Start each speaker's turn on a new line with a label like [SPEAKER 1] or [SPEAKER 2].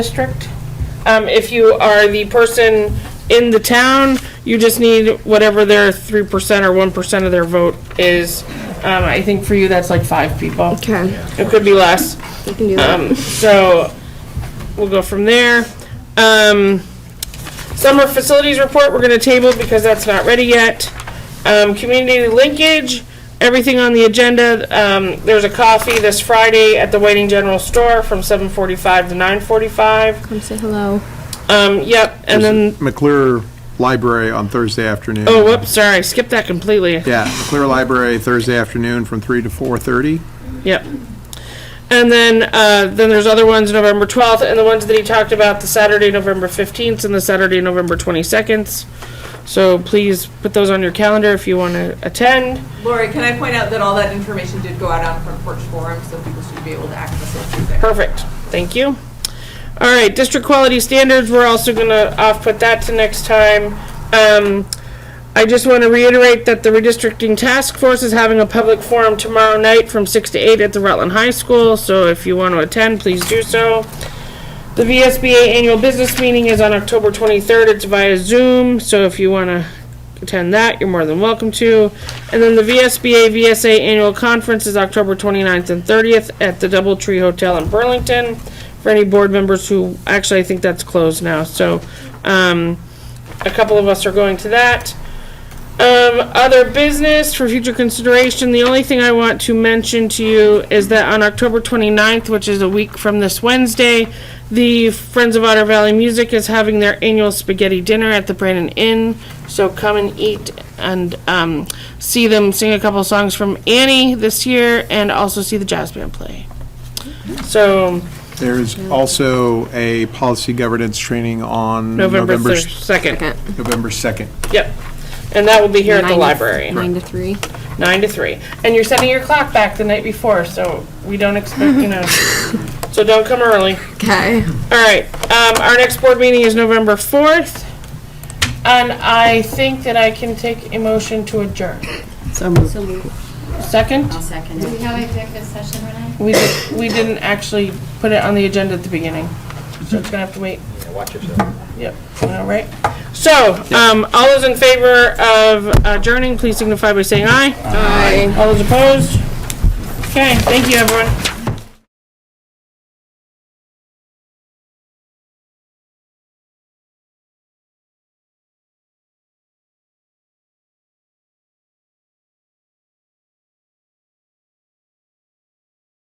[SPEAKER 1] district. Um, if you are the person in the town, you just need whatever their three percent or one percent of their vote is. Um, I think for you, that's like five people.
[SPEAKER 2] Okay,
[SPEAKER 1] It could be less.
[SPEAKER 2] we can do that.
[SPEAKER 1] Um, so we'll go from there. Um, summer facilities report, we're gonna table because that's not ready yet. Um, community linkage, everything on the agenda, um, there's a coffee this Friday at the Waiting General Store from seven forty-five to nine forty-five.
[SPEAKER 2] Come say hello.
[SPEAKER 1] Um, yep, and then,
[SPEAKER 3] McClure Library on Thursday afternoon.
[SPEAKER 1] oh, whoops, sorry, I skipped that completely.
[SPEAKER 3] Yeah, McClure Library Thursday afternoon from three to 4:30.
[SPEAKER 1] Yep. And then, uh, then there's other ones, November 12th, and the ones that he talked about, the Saturday, November 15th, and the Saturday, November 22nd. So please put those on your calendar if you want to attend.
[SPEAKER 4] Lori, can I point out that all that information did go out on Front Porch Forum, so people should be able to access it through there.
[SPEAKER 1] Perfect, thank you. All right, district quality standards, we're also gonna off-put that to next time. Um, I just want to reiterate that the redistricting task force is having a public forum tomorrow night from six to eight at the Rutland High School, so if you want to attend, please do so. The VSBA annual business meeting is on October 23rd. It's via Zoom, so if you want to attend that, you're more than welcome to. And then the VSBA VSA annual conference is October 29th and 30th at the Doubletree Hotel in Burlington. For any board members who, actually, I think that's closed now, so um, a couple of us are going to that. Um, other business for future consideration, the only thing I want to mention to you is that on October 29th, which is a week from this Wednesday, the Friends of Otter Valley Music is having their annual spaghetti dinner at the Brandon Inn. So come and eat and um, see them sing a couple songs from Annie this year and also see the jazz band play. So
[SPEAKER 3] There is also a policy governance training on
[SPEAKER 1] November
[SPEAKER 3] November,
[SPEAKER 1] 2nd.
[SPEAKER 3] November 2nd.
[SPEAKER 1] Yep. And that will be here at the
[SPEAKER 2] Nine to-
[SPEAKER 1] library.
[SPEAKER 2] Nine to three.
[SPEAKER 1] nine to three. And you're setting your clock back the night before, so we don't expect, you know, so don't come early.
[SPEAKER 2] Okay.
[SPEAKER 1] All right, um, our next board meeting is November fourth. And I think that I can take a motion to adjourn. Second,
[SPEAKER 5] Do we have executive session, Renee?
[SPEAKER 1] we, di- we didn't actually put it on the agenda at the beginning, so it's gonna have to wait. Yeah, watch yourself. Yep, all right. So, um, all those in favor of adjourning, please signify by saying aye.
[SPEAKER 2] Bye.
[SPEAKER 1] All those opposed? Okay, thank you, everyone.